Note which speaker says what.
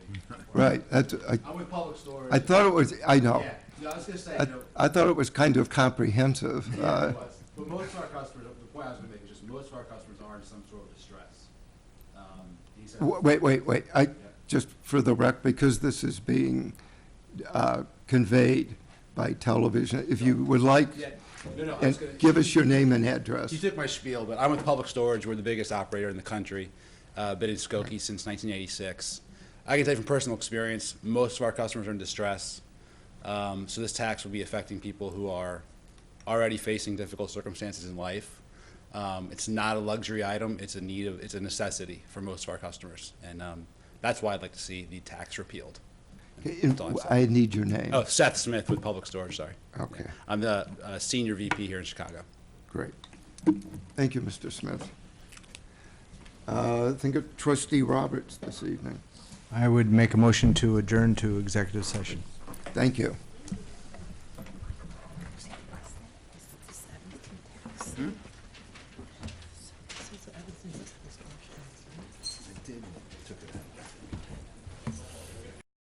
Speaker 1: Right, that's, I,
Speaker 2: I'm with Public Storage.
Speaker 1: I thought it was, I know.
Speaker 2: Yeah, no, I was gonna say,
Speaker 1: I,
Speaker 2: you know,
Speaker 1: I thought it was kind of comprehensive.
Speaker 2: yeah,
Speaker 1: uh,
Speaker 2: it was. But most of our customers, the point I was gonna make is just most of our customers are in some sort of distress. Um, these are-
Speaker 1: w- Wait, wait, wait, I, just for the rec, because this is being uh, conveyed by television, if you would like,
Speaker 2: Yeah, no, no, I was
Speaker 1: and
Speaker 2: gonna.
Speaker 1: give us your name and address.
Speaker 2: You took my spiel, but I'm with Public Storage. We're the biggest operator in the country. Uh, been in Skokie since 1986. I can tell you from personal experience, most of our customers are in distress. Um, so this tax will be affecting people who are already facing difficult circumstances in life. Um, it's not a luxury item. It's a need of. It's a necessity for most of our customers, and um, that's why I'd like to see the tax repealed.
Speaker 1: In-
Speaker 2: Don't say.
Speaker 1: I need your name.
Speaker 2: Oh, Seth Smith with Public Storage. Sorry.
Speaker 1: Okay.
Speaker 2: I'm the uh, senior VP here in Chicago.
Speaker 1: Great. Thank you, Mr. Smith. Uh, Think of trustee Roberts this evening.
Speaker 3: I would make a motion to adjourn to executive session.
Speaker 1: Thank you.